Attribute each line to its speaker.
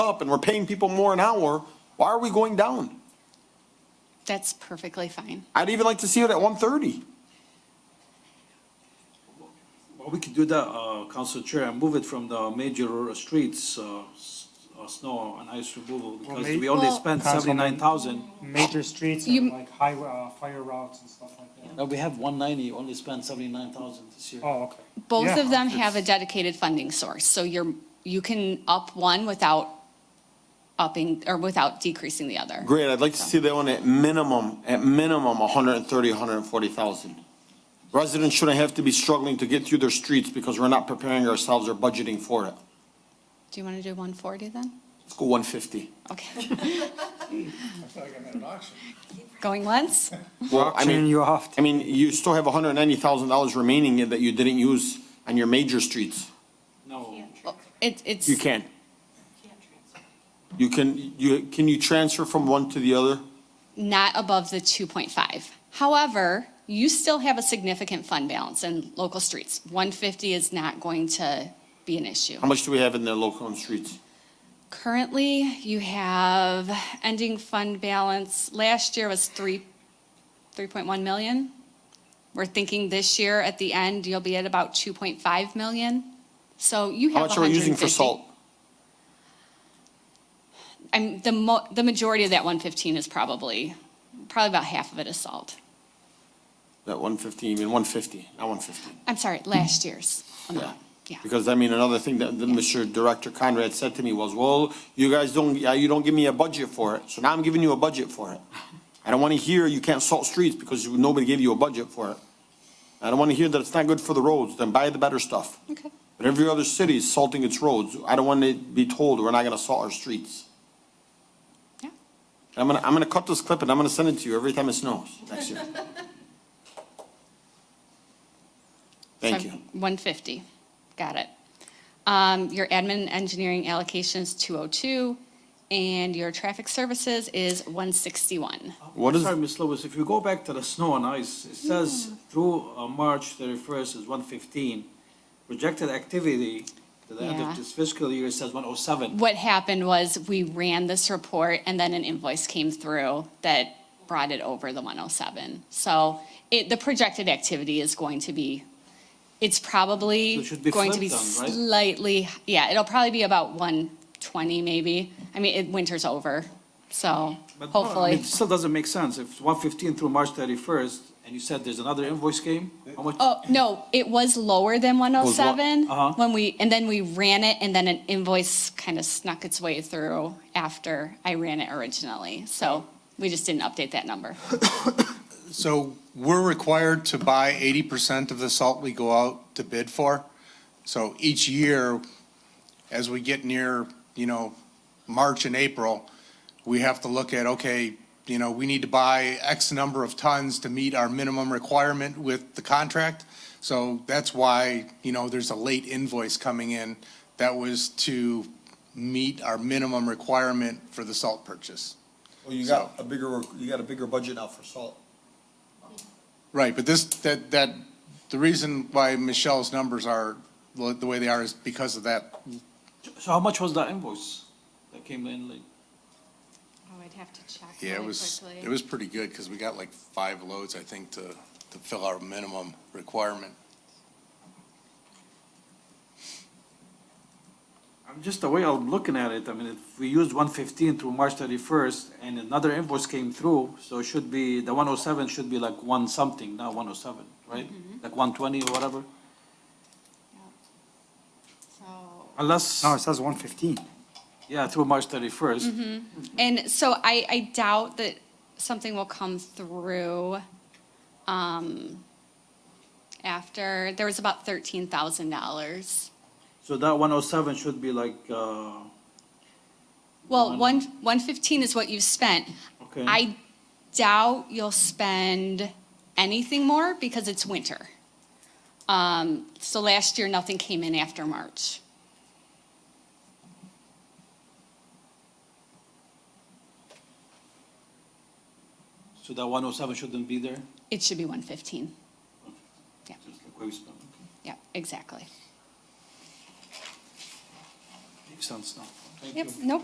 Speaker 1: up and we're paying people more an hour, why are we going down?
Speaker 2: That's perfectly fine.
Speaker 1: I'd even like to see it at one thirty.
Speaker 3: Well, we could do that, uh, Council Chair, and move it from the major streets, uh, s- uh, snow and ice removal, because
Speaker 4: may-
Speaker 3: we only
Speaker 2: Well-
Speaker 3: spent
Speaker 4: Councilman.
Speaker 3: seventy-nine thousand.
Speaker 4: major streets
Speaker 2: You-
Speaker 4: and like highway, uh, fire routes and stuff like that.
Speaker 5: Now, we have one ninety, only spent seventy-nine thousand this year.
Speaker 4: Oh, okay.
Speaker 2: Both
Speaker 4: Yeah.
Speaker 2: of them have a dedicated funding source, so you're, you can up one without upping, or without decreasing the other.
Speaker 1: Great, I'd like to see that one at minimum, at minimum, a hundred and thirty, hundred and forty thousand. Residents shouldn't have to be struggling to get through their streets because we're not preparing ourselves or budgeting for it.
Speaker 2: Do you want to do one forty then?
Speaker 1: Let's go one fifty.
Speaker 2: Okay. Going once?
Speaker 1: Well, I mean,
Speaker 4: you off.
Speaker 1: I mean, you still have hundred and ninety thousand dollars remaining that you didn't use on your major streets.
Speaker 3: No,
Speaker 2: Well, It, it's,
Speaker 1: You can. You can, you, can you transfer from one to the other?
Speaker 2: not above the two point five. However, you still have a significant fund balance in local streets. One fifty is not going to be an issue.
Speaker 1: How much do we have in the local and streets?
Speaker 2: Currently, you have ending fund balance, last year was three, 3.1 million. We're thinking this year, at the end, you'll be at about 2.5 million. So you
Speaker 1: How
Speaker 2: have
Speaker 1: much are we using for
Speaker 2: 150
Speaker 1: salt?
Speaker 2: I'm, the mo, the majority of that 115 is probably, probably about half of it is salt.
Speaker 1: That one fifty, you mean one fifty, not one fifty.
Speaker 2: I'm sorry, last year's amount, yeah.
Speaker 1: Because, I mean, another thing that, that Mr. Director Conrad said to me was, well, you guys don't, yeah, you don't give me a budget for it, so now I'm giving you a budget for it. I don't wanna hear you can't salt streets because you- nobody gave you a budget for it. I don't wanna hear that it's not good for the roads, then buy the better stuff.
Speaker 2: Okay,
Speaker 1: But every other city is salting its roads. I don't want to be told we're not going to salt our streets.
Speaker 2: yeah.
Speaker 1: I'm going to, I'm going to cut this clip and I'm going to send it to you every time it snows next year. Thank
Speaker 2: So
Speaker 1: you.
Speaker 2: 150, got it. Um, Your admin engineering allocation is 202, and your traffic services is 161.
Speaker 1: What is,
Speaker 3: sorry, Ms. Lewis, if you go back to the snow and ice, it says through uh, March thirty-first is one fifteen. Projected activity to the end
Speaker 2: Yeah.
Speaker 3: of this fiscal year says one oh seven.
Speaker 2: What happened was we ran this report, and then an invoice came through that brought it over the 107. So it, the projected activity is going to be, it's
Speaker 3: So
Speaker 2: probably
Speaker 3: it should be
Speaker 2: going to be
Speaker 3: flipped then, right?
Speaker 2: slightly, yeah, it'll probably be about 120 maybe. I mean, it- winter's over, so
Speaker 3: But no, I mean,
Speaker 2: hopefully.
Speaker 3: It still doesn't make sense, if one fifteen through March thirty-first, and you said there's another invoice came, how much?
Speaker 2: Oh, no, it was lower than one oh seven
Speaker 3: Uh-huh.
Speaker 2: when we, and then we ran it and then an invoice kind of snuck its way through after I ran it originally. So we just didn't update that number.
Speaker 6: So we're required to buy eighty percent of the salt we go out to bid for. So each year, as we get near, you know, March and April, we have to look at, okay, you know, we need to buy X number of tons to meet our minimum requirement with the contract. So that's why, you know, there's a late invoice coming in that was to meet our minimum requirement for the salt purchase.
Speaker 7: Well, Oh, you got a bigger, you got a bigger budget now for salt.
Speaker 6: Right, but this, that, that, the reason why Michelle's numbers are the the way they are is because of that.
Speaker 3: So how much was that invoice that came in late?
Speaker 2: Oh, I'd have to check
Speaker 6: Yeah, it was, it was pretty good, because we got like five loads, I think, to, to fill our minimum requirement.
Speaker 3: I'm just the way I'm looking at it, I mean, if we used one fifteen through March thirty-first and another invoice came through, so it should be, the one oh seven should be like one something, not one oh seven, right?
Speaker 2: Mm-hmm.
Speaker 3: Like one twenty or whatever, unless,
Speaker 4: No, it says one fifteen.
Speaker 3: yeah, through March thirty-first.
Speaker 2: Mm-hmm. And so I, I doubt that something will come through, um, after, there was about thirteen thousand dollars.
Speaker 3: So that one oh seven should be like, uh,
Speaker 2: Well, one, one fifteen is what you've spent.
Speaker 3: Okay.
Speaker 2: I doubt you'll spend anything more because it's winter. Um, so last year, nothing came in after March.
Speaker 3: so that one oh seven shouldn't be there?
Speaker 2: It should be one fifteen. Yeah,
Speaker 3: Just like we spent, okay.
Speaker 2: yeah, exactly.
Speaker 3: Makes sense now. Thank
Speaker 2: Yep,
Speaker 3: you.
Speaker 2: no